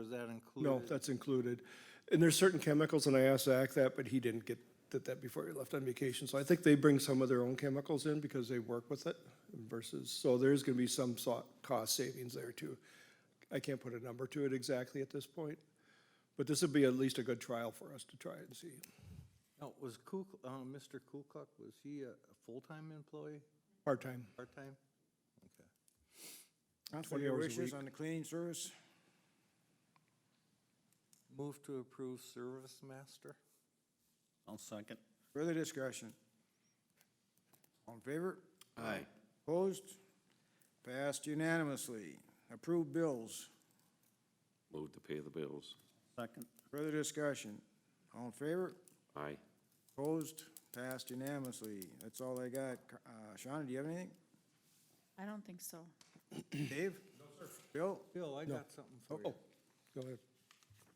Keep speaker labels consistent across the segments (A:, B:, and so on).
A: Is that included?
B: No, that's included. And there's certain chemicals, and I asked Zach that, but he didn't get that, that before he left on vacation. So I think they bring some of their own chemicals in because they work with it versus, so there's gonna be some so- cost savings there too. I can't put a number to it exactly at this point, but this would be at least a good trial for us to try and see.
A: Now, was Kuk, uh, Mr. Kukuk, was he a a full-time employee,
B: Part-time,
A: part-time? Okay.
C: Council,
B: 20
C: your
B: hours a
C: wishes
B: week.
C: on the cleaning service?
A: Move to approve service master?
D: I'll second.
C: Further discussion? All in favor?
D: Aye.
C: Opposed? Passed unanimously. Approved bills.
E: Move to pay the bills.
D: Second.
C: Further discussion? All in favor?
E: Aye.
C: Opposed? Passed unanimously. That's all I got. Uh, Shawna, do you have anything?
F: I don't think so.
C: Dave? No, sir. Bill?
A: Bill, I got something for you.
B: Oh, go ahead.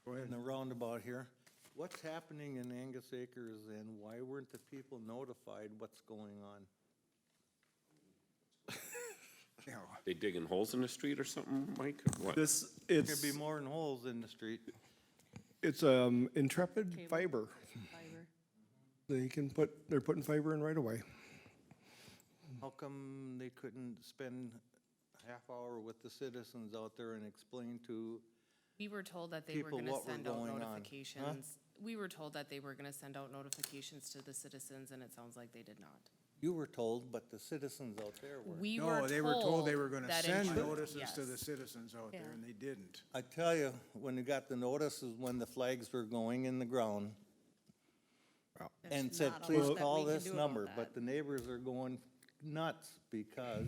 C: Go ahead.
A: In the roundabout here, what's happening in Angus Acres and why weren't the people notified what's going on?
C: Yeah.
E: They digging holes in the street or something, Mike? or What?
B: This,
A: There'd
B: it's,
A: be more than holes in the street.
B: it's, um, Intrepid
F: Cable.
B: Fiber.
F: Fiber.
B: They can put, they're putting fiber in right away.
A: How come they couldn't spend a half hour with the citizens out there and explain to,
G: We were told that they were
A: people
G: gonna
A: what were
G: send out
A: going on, huh?
G: notifications. We were told that they were gonna send out notifications to the citizens, and it sounds like they did not.
A: you were told, but the citizens out there were.
G: We were told.
C: No, they were told they were gonna
G: that it
C: send
G: would,
C: notices to the
G: yes.
C: citizens out there,
F: Yeah.
C: and they didn't.
A: I tell you, when you got the notices, when the flags were going in the ground,
F: There's
A: and said,
F: not a
A: please
F: lot that
A: call
F: we can
A: this
F: do about
A: number,
F: that.
A: but the neighbors are going nuts because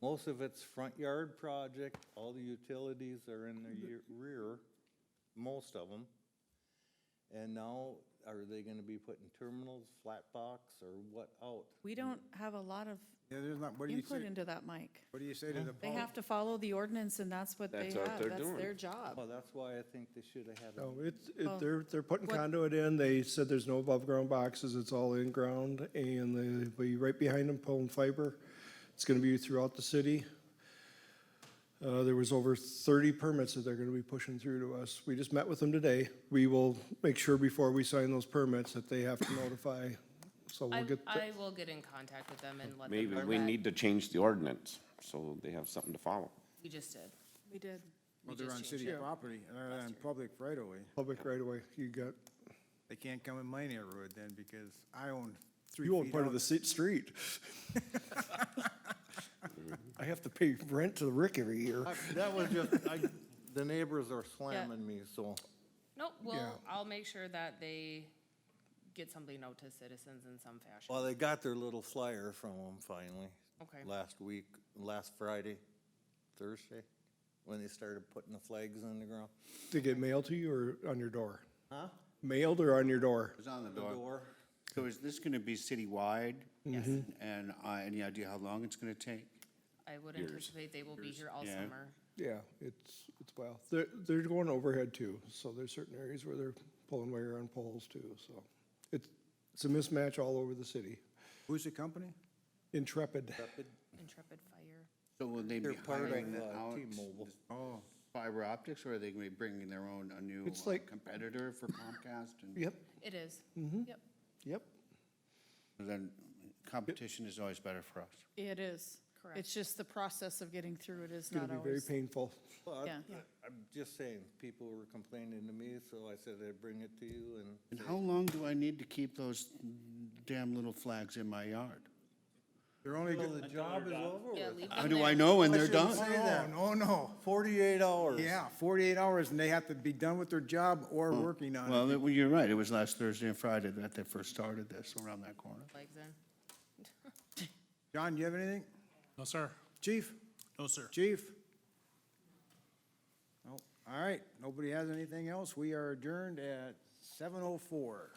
A: most of it's front yard project, all the utilities are in the ye- rear, most of them. And now, are they gonna be putting terminals, flat box, or what out?
F: We don't have a lot of
C: Yeah, there's not, what do you
F: input
C: say,
F: into that, Mike.
C: what do you say to the
F: They
C: public?
F: have to follow the ordinance and that's what they
E: That's what
F: have.
E: they're
F: That's
E: doing.
F: their job.
A: Well, that's why I think they should have had
B: No,
A: a
B: it's, it,
F: Well,
B: they're, they're putting
F: what-
B: conduit in, they said there's no above-ground boxes, it's all in-ground, and they'll be right behind them pulling fiber. It's gonna be throughout the city. Uh, there was over thirty permits that they're gonna be pushing through to us. We just met with them today. We will make sure before we sign those permits that they have to notify, so we'll
G: I,
B: get. the-
G: I will get in contact with them and let them
E: Maybe
G: know
E: we
G: that
E: need to change the ordinance so they have something to follow.
G: we just did.
F: We did.
C: Well, they're
G: just
C: on
G: changed
C: city property, uh, on public right away.
B: Public right away, you got,
C: They can't come in my neighborhood then, because I own three feet
B: you own part of
C: out.
B: the se- street. I have to pay rent to Rick every year.
A: I- That was just, I, the neighbors are slamming me, so.
G: Nope, well, I'll make sure that they get something out to citizens in some fashion.
A: Well, they got their little flyer from them finally.
G: Okay.
A: Last week, last Friday, Thursday, when they started putting the flags in the ground.
B: To get mailed to you or on your door?
A: Huh?
B: Mailed or on your door?
D: It's on the
A: The
D: door.
A: door.
D: So is this gonna be citywide? Yes. And, uh, any idea how long it's gonna take?
G: I would anticipate they will be here all
D: Yeah.
G: summer.
B: Yeah, it's, it's well, they're, they're going overhead too, so there's certain areas where they're pulling wire on poles too, so. It's, it's a mismatch all over the city.
C: Who's the company?
B: Intrepid,
G: Intrepid Fire.
D: So will they be
A: They're part of,
D: hiring
A: uh,
D: out
A: T-Mobile.
C: Oh,
D: fiber optics or are they gonna be bringing their own, a new
B: It's
D: uh,
B: like-
D: competitor for Comcast? And
B: yep,
G: It is.
B: Mm-hmm.
G: Yep.
B: yep.
D: Then competition is always better for us.
F: It is.
G: Correct.
F: It's just the process of getting through it is
B: It's gonna
F: not
B: be very
F: always.
B: painful.
A: Well, I-
F: Yeah.
A: I'm just saying, people were complaining to me, so I said I'd bring it to you and
D: And how long do I need to keep those damn little flags in my yard?
C: they're only,
A: Well,
C: go-
A: the job is over
G: Yeah,
A: with.
G: leave
D: How
G: them
D: do I
G: there.
D: know when
C: I
D: they're
C: shouldn't
D: done?
C: say that. Oh, no.
A: Forty-eight hours.
C: Yeah, forty-eight hours, and they have to be done with their job or working on it.
D: Well, it- well, you're right. It was last Thursday and Friday that they first started this around that corner.
G: Flags in.
C: John, do you have anything?
H: No, sir.
C: Chief?
H: No, sir.
C: Chief? No. All right, nobody has anything else. We are adjourned at seven oh four.